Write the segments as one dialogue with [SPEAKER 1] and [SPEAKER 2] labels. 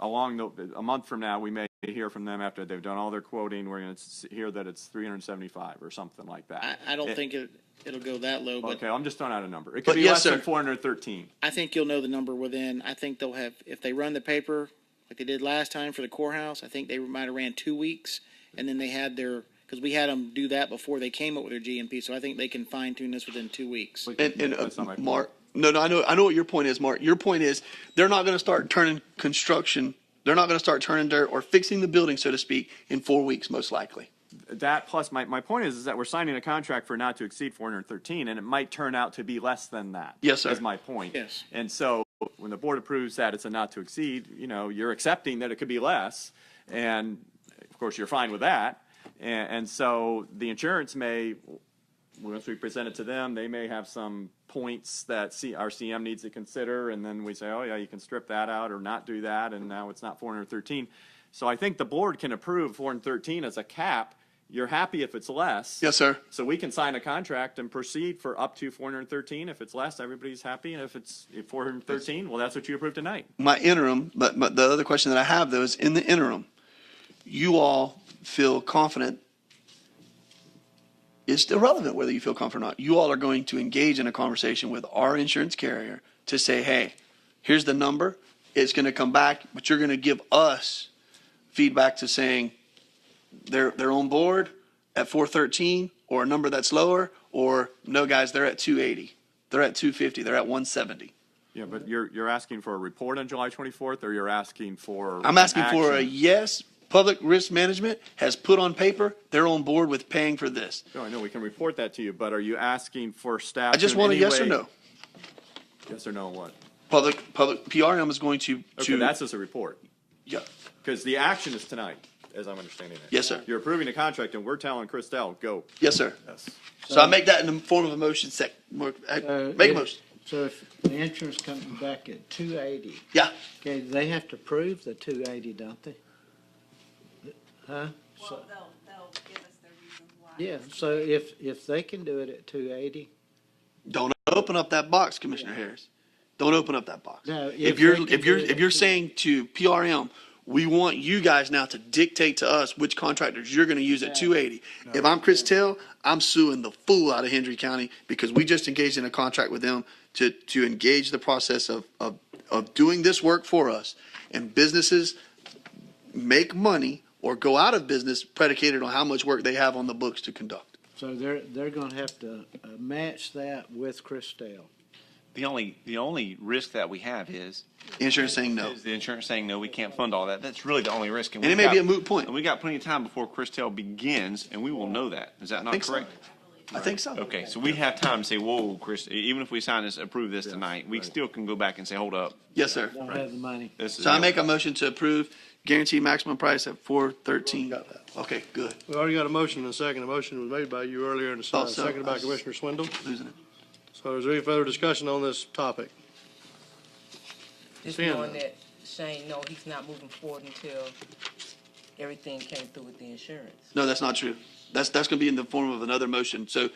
[SPEAKER 1] along the, a month from now, we may hear from them after they've done all their quoting, we're gonna s- hear that it's three hundred and seventy-five or something like
[SPEAKER 2] I,
[SPEAKER 1] that.
[SPEAKER 2] I don't
[SPEAKER 1] It-
[SPEAKER 2] think it, it'll go that low, but
[SPEAKER 1] Okay, I'm just throwing out a number. It could
[SPEAKER 2] But
[SPEAKER 1] be
[SPEAKER 2] yes,
[SPEAKER 1] less than
[SPEAKER 2] sir.
[SPEAKER 1] four hundred and thirteen.
[SPEAKER 2] I think you'll know the number within, I think they'll have, if they run the paper like they did last time for the courthouse, I think they might have ran two weeks. And then they had their, because we had them do that before they came up with their GMP, so I think they can fine tune this within two weeks.
[SPEAKER 1] That's
[SPEAKER 3] And, and uh,
[SPEAKER 1] not my point.
[SPEAKER 3] Mark, no, no, I know, I know what your point is, Mark. Your point is they're not going to start turning construction. They're not going to start turning dirt or fixing the building, so to speak, in four weeks, most likely.
[SPEAKER 1] That plus, my, my point is, is that we're signing a contract for not to exceed four hundred and thirteen, and it might turn out to be less than that.
[SPEAKER 3] Yes, sir.
[SPEAKER 1] Is my point.
[SPEAKER 2] Yes.
[SPEAKER 1] And so, when the board approves that it's a not to exceed, you know, you're accepting that it could be less, and of course, you're fine with that. And, and so, the insurance may, once we present it to them, they may have some points that C, our CM needs to consider, and then we say, oh, yeah, you can strip that out or not do that, and now it's not four hundred thirteen. So I think the board can approve four hundred thirteen as a cap. You're happy if it's less.
[SPEAKER 3] Yes, sir.
[SPEAKER 1] So we can sign a contract and proceed for up to four hundred thirteen. If it's less, everybody's happy, and if it's four hundred thirteen, well, that's what you approved tonight.
[SPEAKER 3] my interim, but, but the other question that I have though is in the interim, you all feel confident. It's irrelevant whether you feel confident or not. You all are going to engage in a conversation with our insurance carrier to say, hey, here's the number. It's going to come back, but you're going to give us feedback to saying they're, they're on board at 413 or a number that's lower, or no, guys, they're at 280. They're at 250. They're at 170.
[SPEAKER 1] Yeah, but you're, you're asking for a report on July twenty-fourth, or you're asking for?
[SPEAKER 3] I'm asking for a
[SPEAKER 1] action?
[SPEAKER 3] yes. Public risk management has put on paper they're on board with paying for this.
[SPEAKER 1] No, I know, we can report that to you, but are you asking for staff?
[SPEAKER 3] I just
[SPEAKER 1] to in
[SPEAKER 3] want a
[SPEAKER 1] any
[SPEAKER 3] yes or
[SPEAKER 1] way-
[SPEAKER 3] no.
[SPEAKER 1] Yes or no on what?
[SPEAKER 3] Public public PRM is going to
[SPEAKER 1] Okay,
[SPEAKER 3] to
[SPEAKER 1] that's just a report,
[SPEAKER 3] yeah.
[SPEAKER 1] because the action is tonight, as I'm understanding it.
[SPEAKER 3] Yes, sir.
[SPEAKER 1] You're approving a contract, and we're telling Christelle, go.
[SPEAKER 3] yes sir.
[SPEAKER 1] Yes.
[SPEAKER 3] So, I make that in the form of a motion. Sec, mo- I-
[SPEAKER 1] Uh,
[SPEAKER 4] So
[SPEAKER 3] make a
[SPEAKER 4] if-
[SPEAKER 3] motion.
[SPEAKER 4] So if the insurance comes back at two eighty,
[SPEAKER 3] Yeah.
[SPEAKER 4] okay, they have to prove the two eighty, don't they? Huh?
[SPEAKER 5] Well, they'll, they'll give us the reason why.
[SPEAKER 4] Yeah, so if, if they can do it at two eighty,
[SPEAKER 3] Don't open up that box, Commissioner Harris. Don't open up that box.
[SPEAKER 4] No,
[SPEAKER 3] if
[SPEAKER 4] if
[SPEAKER 3] you're
[SPEAKER 4] they can
[SPEAKER 3] if you're
[SPEAKER 4] do it-
[SPEAKER 3] if you're saying to PRM, we want you guys now to dictate to us which contractors you're going to use at 280. If I'm Chris Tell, I'm suing the fool out of Hendry County because we just engaged in a contract with them to to engage the process of of of doing this work for us and businesses make money or go out of business predicated on how much work they have on the books to conduct.
[SPEAKER 4] so they're, they're gonna have to uh, match that with Christelle.
[SPEAKER 6] The only, the only risk that we have is,
[SPEAKER 3] Insurance saying no.
[SPEAKER 6] is the insurance saying, no, we can't fund all that. That's really the only risk.
[SPEAKER 3] And it
[SPEAKER 6] we've
[SPEAKER 3] may be
[SPEAKER 6] got-
[SPEAKER 3] a moot point.
[SPEAKER 6] And we got plenty of time before Christel begins, and we will know that. Is that not
[SPEAKER 3] Think so.
[SPEAKER 6] correct?
[SPEAKER 3] I think so.
[SPEAKER 6] Okay, so we have time to say, whoa, Chris, e-" even if we sign this, approve this tonight, we still can go back and say, hold up.
[SPEAKER 3] Yes, sir.
[SPEAKER 4] Don't have the money.
[SPEAKER 6] this is
[SPEAKER 3] So I make a motion to approve guaranteed maximum price at four thirteen. Okay, good.
[SPEAKER 7] We already got a motion and a second. A motion was made by you earlier in the
[SPEAKER 3] Thought
[SPEAKER 7] second,
[SPEAKER 3] so.
[SPEAKER 7] seconded by Commissioner Swindle.
[SPEAKER 3] Losing it.
[SPEAKER 7] So is there any further discussion on this topic?
[SPEAKER 8] Just
[SPEAKER 7] Seeing
[SPEAKER 8] knowing
[SPEAKER 7] none.
[SPEAKER 8] that Shane, no, he's not moving forward until everything came through with the insurance.
[SPEAKER 3] No, that's not true. That's, that's gonna be in the form of another motion. So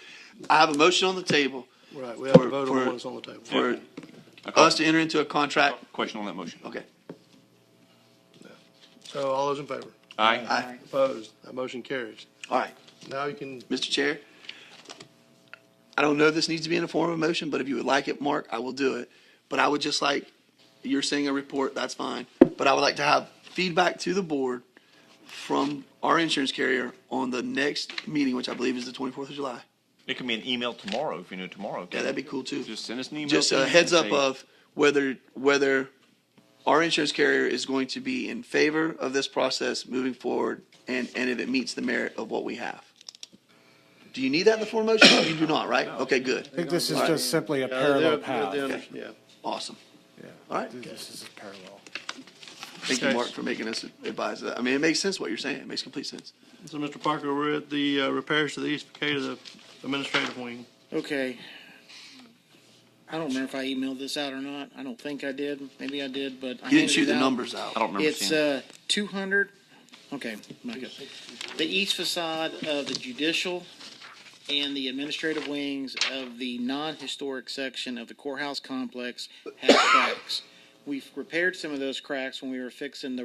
[SPEAKER 3] I have a motion on the table
[SPEAKER 7] Right, we have
[SPEAKER 3] For-
[SPEAKER 7] a vote
[SPEAKER 3] for-
[SPEAKER 7] on what's on the table.
[SPEAKER 3] for
[SPEAKER 6] a
[SPEAKER 3] us to enter into a contract.
[SPEAKER 6] Question on that motion.
[SPEAKER 3] Okay.
[SPEAKER 7] So all those in favor?
[SPEAKER 6] Aye.
[SPEAKER 3] Aye.
[SPEAKER 7] Opposed? That motion carries.
[SPEAKER 3] All right,
[SPEAKER 7] Now you can,
[SPEAKER 3] Mr. Chair. I don't know if this needs to be in the form of a motion, but if you would like it, Mark, I will do it. But I would just like, you're saying a report, that's fine. But I would like to have feedback to the board from our insurance carrier on the next meeting, which I believe is the twenty-fourth of July.
[SPEAKER 6] It can be an email tomorrow, if you know tomorrow.
[SPEAKER 3] Yeah, that'd be cool too.
[SPEAKER 6] Just send us an email.
[SPEAKER 3] Just a
[SPEAKER 6] and
[SPEAKER 3] heads up uh,
[SPEAKER 6] say-
[SPEAKER 3] of whether, whether our insurance carrier is going to be in favor of this process moving forward and, and if it meets the merit of what we have. Do you need that in the form of motion? You do not, right? Okay, good.
[SPEAKER 9] I think this is
[SPEAKER 3] Alright.
[SPEAKER 9] just simply a
[SPEAKER 7] Yeah, they're-
[SPEAKER 9] parallel
[SPEAKER 7] they're-
[SPEAKER 9] path.
[SPEAKER 7] they're- yeah.
[SPEAKER 3] Awesome.
[SPEAKER 9] Yeah.
[SPEAKER 3] All right.
[SPEAKER 9] This is a parallel.
[SPEAKER 3] Thank you, Mark, for making us advise that. I mean, it makes sense what you're saying. It makes complete sense.
[SPEAKER 7] So Mr. Parker, we're at the uh, repairs to the east facade of the administrative wing.
[SPEAKER 2] Okay. I don't remember if I emailed this out or not. I don't think I did. Maybe I did, but I
[SPEAKER 3] You didn't
[SPEAKER 2] handed
[SPEAKER 3] shoot
[SPEAKER 2] it
[SPEAKER 3] the
[SPEAKER 2] out.
[SPEAKER 3] numbers out.
[SPEAKER 6] I don't remember
[SPEAKER 2] It's,
[SPEAKER 6] seeing. it.
[SPEAKER 2] uh, two hundred, okay, my God. The east facade of the judicial and the administrative wings of the non-historic section of the courthouse complex has cracks. we've repaired some of those cracks when we were fixing the